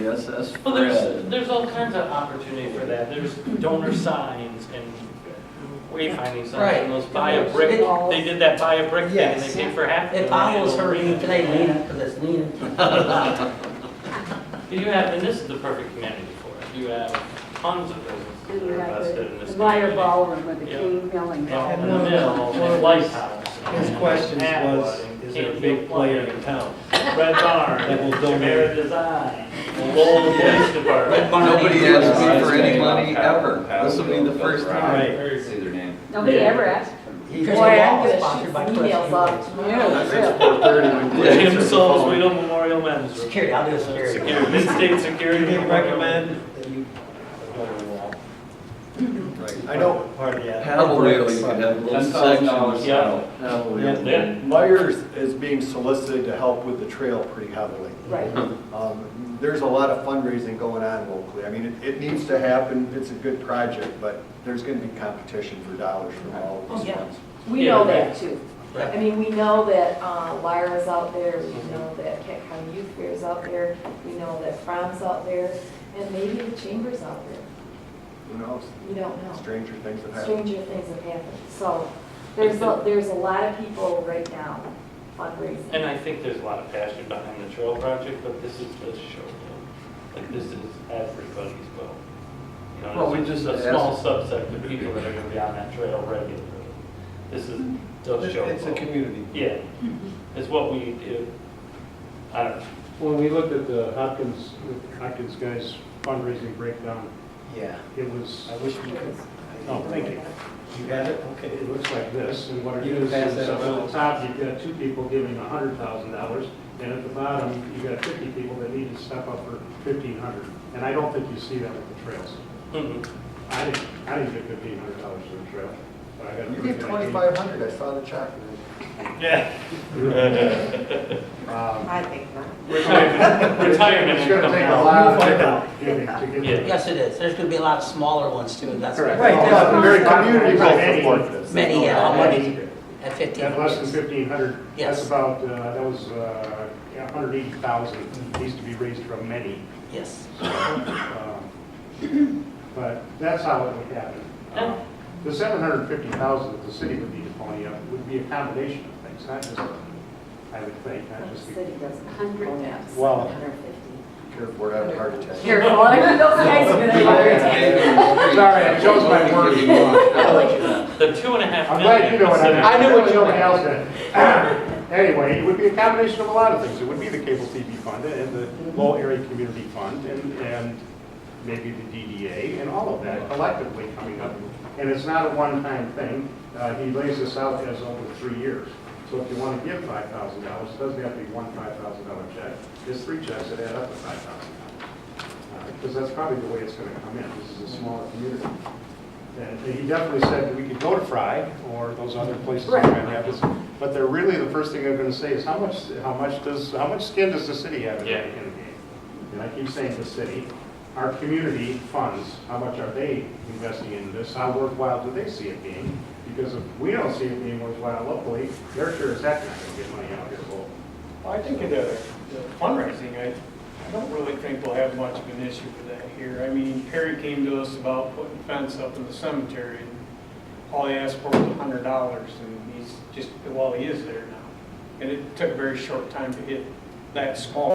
Yes, that's. Well, there's, there's all kinds of opportunity for that. There's donor signs and wayfinding signs, and those buy a brick, they did that buy a brick thing, and they paid for half. of It the follows national her arena. today, Lena, because it's Lena. You have, and this is the perfect community for it. You have tons of businesses that are invested in this. The Meyer community. Ballroom with the Yeah. King Milling. Well, Company. in the mill, and Lighthouse. His and question was, Atwood, and is there a Canfield big player Plain, in town? Red Barn, That will donate. Tamara Design, Lowell Police Department. Nobody asked me for any money ever. This will be the first time. Right. Say their name. Nobody ever asked for them. He's Boy, a I'm law gonna sponsored shoot by some Cliff emails out Hugo. tomorrow. Tim Salisbury Memorial Men's Room. Security, I'll do a security. Security, mid-state Do security. you recommend that you go to the wall? I know part of that. Paddle wheel, you could have little Ten thousand sections. dollars. Yeah. Paddle Yeah. wheel. Yeah. Myers is being solicited to help with the trail pretty heavily. Right. Um, There's a lot of fundraising going on locally. I mean, it- it needs to happen, it's a good project, but there's going to be competition for dollars from all Oh, of these yeah. ones. We know that too. I mean, we know that uh, Lyra's out there, we know that Kent County Youth Fair's out there, we know that Fran's out there, and maybe the Chamber's out there. Who knows? We don't know. Stranger things have happened. Stranger things have happened. So there's, a there's a lot of people right now fundraising. And I think there's a lot of passion behind the trail project, but this is the show. Like, this is everybody's boat. You know, Well, we this is just A small subset of people that are gonna be on that trail regularly. This is the show. It's a boat. community. Yeah, it's what we do. I don't know. When we looked at the Hopkins, Hopkins guys fundraising breakdown, Yeah, it was, I wish we could. oh, thank you. You got it? Okay. It looks like this, and what it You can is, pass is that up around. at the top, you've got two people giving a hundred thousand dollars, and at the bottom, you've got fifty people that need to step up for fifteen hundred. And I don't think you see that with the trails. Mhm. I didn't, I didn't get fifteen hundred dollars for the trail. but I got a You pretty gave good 2,500, I saw the check. Yeah. idea. Um, I think not. Retirement, retirement It's gonna income take a now. lot of- giving to give- Yeah. Yes, it is. There's gonna be a lot of smaller ones too, and that's. Correct. Right, that's a very community Right. support for this. Many, uh, how many at fifteen? At less than fifteen hundred, Yes. that's about, uh, that was, uh, hundred eighty thousand, needs to be raised from many. Yes. So, um, But that's how it would happen. Uh, The seven hundred fifty thousand that the city would need to pony up would be a combination of things, not just, I would think, not The just. the- city doesn't. 100 maps. Well- 150. Careful, we're having a heart attack. Careful, I think those guys are gonna have a attack. Sorry, I chose my word. The two and a half I'm million. glad you know what I meant. considered- I knew what nobody else did. Anyway, it would be a combination of a lot of things. It would be the cable TV fund and the low area community fund and, and maybe the DDA and all of that collectively coming up. And it's not a one-time thing. Uh, he lays this out as over three years. So if you want to give five thousand dollars, it doesn't have to be one five thousand dollar check. It's three checks that add up to five thousand dollars. Because that's probably the way it's going to come in. This is a smaller community. And he definitely said that we could go to Fry or those other places in Grand Rapids, but they're really, the first thing they're gonna say is, how much, how much does, how much skin does the city have in the Yeah. in the game? And I keep saying the city, our community funds, how much are they investing in this? How worthwhile do they see it being? Because if we don't see it being worthwhile locally, they're sure as heck not gonna get money out of it locally. Well, I think in the the fundraising, I, I don't really think we'll have much of an issue with that here. I mean, Perry came to us about putting a fence up in the cemetery, and all he asked for was a hundred dollars, and he's just, well, he is there now. And it took a very short time to hit that small